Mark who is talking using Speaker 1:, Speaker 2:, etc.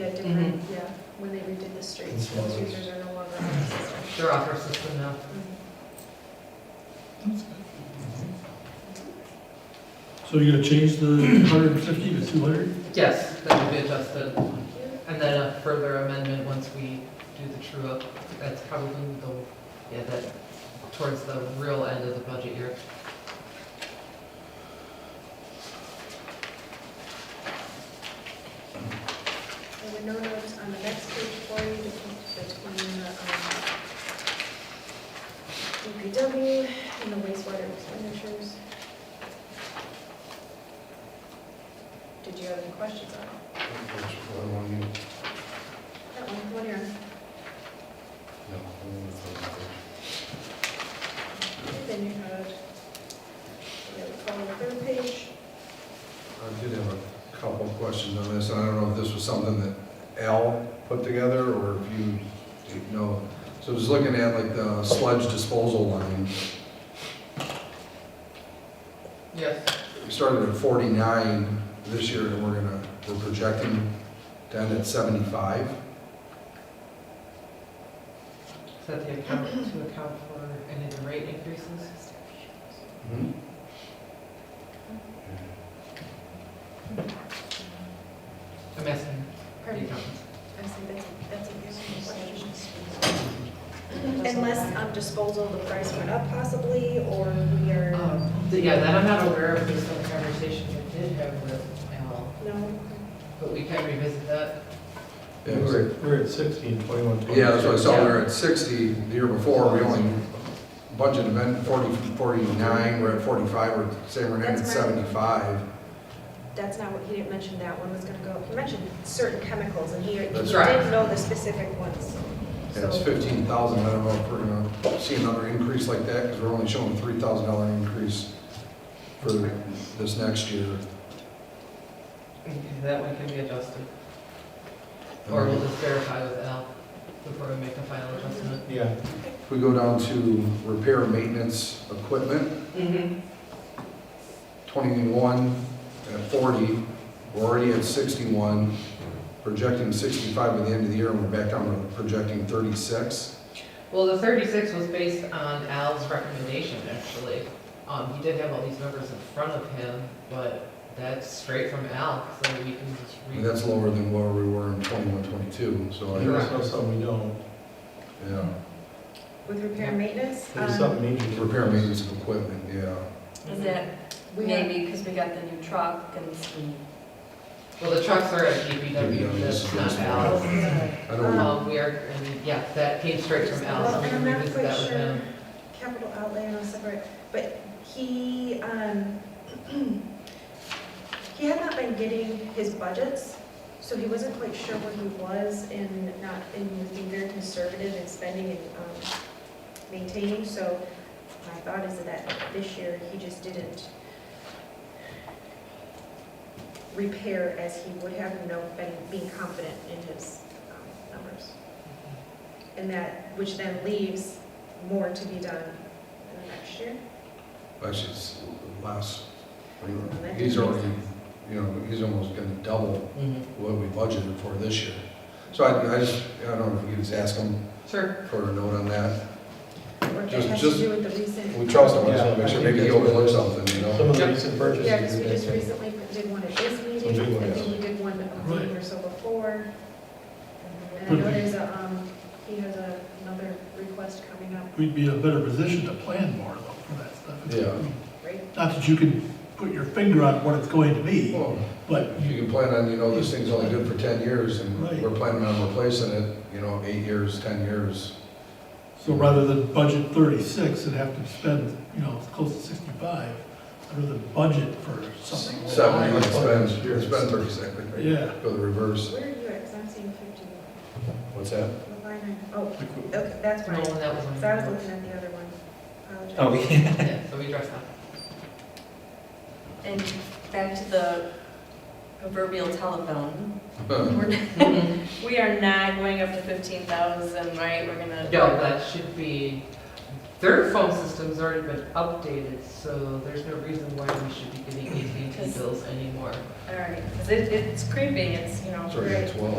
Speaker 1: Mhm.
Speaker 2: yeah, when they redid the streets,
Speaker 3: It's
Speaker 2: those
Speaker 3: one of those.
Speaker 2: users are no longer on the system.
Speaker 1: They're off our system now.
Speaker 4: So you're gonna change the hundred and fifty to two hundred?
Speaker 1: Yes, that will be adjusted. And then a further amendment once we do the true up. That's probably the, yeah, that, towards the real end of the budget year.
Speaker 2: There were no notes on the next page for you, to keep between the um, DPW and the wastewater expenditures. Did you have any questions on it? that one? What are, then you had, you have a column third page.
Speaker 3: I did have a couple of questions on this, and I don't know if this was something that Al put together, or if you, you know. So just looking at like the sludge disposal line,
Speaker 1: Yes,
Speaker 3: we started at forty-nine this year, and we're gonna, we're projecting to end at seventy-five.
Speaker 1: is that the account, to account for any of the rate increases? I'm asking the
Speaker 2: Pardon?
Speaker 1: accountants.
Speaker 2: I see, that's, that's a useful question. Unless um, disposal, the price went up possibly, or we are,
Speaker 1: Um, th- Yeah, that I'm not aware of, there's some conversations we did have with Al,
Speaker 2: no?
Speaker 1: but we can revisit that.
Speaker 3: Yeah, we're-
Speaker 4: we're at sixty and twenty-one.
Speaker 3: Yeah, that's what I saw, we were at 60 the year before, we only budgeted event 40, 49, we're at 45, we're saying we're at
Speaker 2: That's right.
Speaker 3: 75.
Speaker 2: That's not what, he didn't mention that one was gonna go, he mentioned certain chemicals, and he he
Speaker 3: That's
Speaker 2: didn't
Speaker 1: right.
Speaker 2: know the specific ones.
Speaker 3: And it's
Speaker 2: So,
Speaker 3: 15,000, I don't know if we're gonna see another increase like that, because we're only showing a $3,000 increase for this next year.
Speaker 1: Okay, That one can be adjusted, or
Speaker 3: Um,
Speaker 1: we'll just verify with Al before we make a final adjustment.
Speaker 4: Yeah.
Speaker 3: If we go down to repair and maintenance equipment,
Speaker 1: Mm-hmm.
Speaker 3: 21 at 40, we're already at 61, projecting 65 by the end of the year, and we're back down to projecting 36.
Speaker 1: Well, the 36 was based on Al's recommendation, actually. Um, He did have all these numbers in front of him, but that's straight from Al, so we can just
Speaker 3: I mean,
Speaker 1: read.
Speaker 3: That's lower than where we were in 21, 22, so, I-
Speaker 1: Correct.
Speaker 4: There's no something we don't,
Speaker 3: yeah.
Speaker 2: with repair and maintenance,
Speaker 4: there's
Speaker 2: um,
Speaker 4: something major.
Speaker 3: Repair and maintenance of equipment, yeah.
Speaker 5: Is that
Speaker 2: um, We-
Speaker 5: maybe because we got the new truck and some,
Speaker 1: Well, the trucks are at
Speaker 3: Yeah,
Speaker 1: DPW,
Speaker 3: this
Speaker 1: that's
Speaker 3: is
Speaker 1: not
Speaker 3: this
Speaker 2: Oh,
Speaker 1: Al's.
Speaker 3: I don't,
Speaker 1: Um, We are, and yeah, that came straight from Al,
Speaker 2: well,
Speaker 1: so we
Speaker 2: and
Speaker 1: can
Speaker 2: I'm not
Speaker 1: revisit
Speaker 2: quite
Speaker 1: that with
Speaker 2: sure,
Speaker 1: him.
Speaker 2: capital outlay and all separate, but he, um, he had not been getting his budgets, so he wasn't quite sure what he was in, not, in was being very conservative in spending and, um, maintaining, so my thought is that this year, he just didn't repair as he would have, you know, been, being confident in his, um, numbers. And that, which then leaves more to be done in the next year.
Speaker 3: actually, it's less. He's already, you know, he's almost gonna double
Speaker 1: Mhm.
Speaker 3: what we budgeted for this year. So I, I just, I don't know if you could just ask him
Speaker 1: Sure.
Speaker 3: for a note on that.
Speaker 2: Or if that
Speaker 3: Just-
Speaker 2: has
Speaker 3: just-
Speaker 2: to do with the recent,
Speaker 3: We trust him, I just
Speaker 4: Yeah,
Speaker 3: wanna make
Speaker 4: I
Speaker 3: sure,
Speaker 4: think
Speaker 3: maybe he
Speaker 4: that's-
Speaker 3: overlooked something, you
Speaker 4: Some
Speaker 3: know?
Speaker 4: of the recent purchases.
Speaker 2: yeah, because we
Speaker 4: we've
Speaker 2: just
Speaker 4: made.
Speaker 2: recently did one at this
Speaker 3: Oh,
Speaker 4: We
Speaker 2: meeting,
Speaker 4: did one,
Speaker 2: I think
Speaker 4: yes.
Speaker 2: we did one a
Speaker 4: Right.
Speaker 2: week or so before. And I
Speaker 1: Hmm.
Speaker 2: know there's a, um, he has a- another request coming up,
Speaker 6: we'd be in a better position to plan more though for that stuff.
Speaker 3: Yeah.
Speaker 2: right?
Speaker 6: Not that you can put your finger on what it's going to be,
Speaker 3: Well,
Speaker 6: but
Speaker 3: If you can plan on, you know, this thing's only good for 10 years, and
Speaker 6: Right.
Speaker 3: we're planning on replacing it, you know, eight years, 10 years.
Speaker 6: so rather than budget thirty-six and have to spend, you know, close to sixty-five, rather than budget for something.
Speaker 3: Seven, you spend, spend thirty-six.
Speaker 6: Yeah.
Speaker 3: Go the reverse.
Speaker 2: Where are you at, because I'm seeing fifty-one,
Speaker 3: What's that?
Speaker 2: what line are- oh, okay, that's
Speaker 1: No,
Speaker 2: right,
Speaker 1: that was on.
Speaker 2: so I was looking at the other one, apologize.
Speaker 1: Yeah, so we addressed that.
Speaker 5: and back to the proverbial telephone.
Speaker 3: Huh.
Speaker 5: We're, we are not going up to fifteen thousand, right? We're gonna.
Speaker 1: No, that should be, their phone system's already been updated, so there's no reason why we should be getting AT&T bills anymore.
Speaker 5: All right, 'cause it, it's creeping, it's, you know.
Speaker 3: Sorry, that's twelve.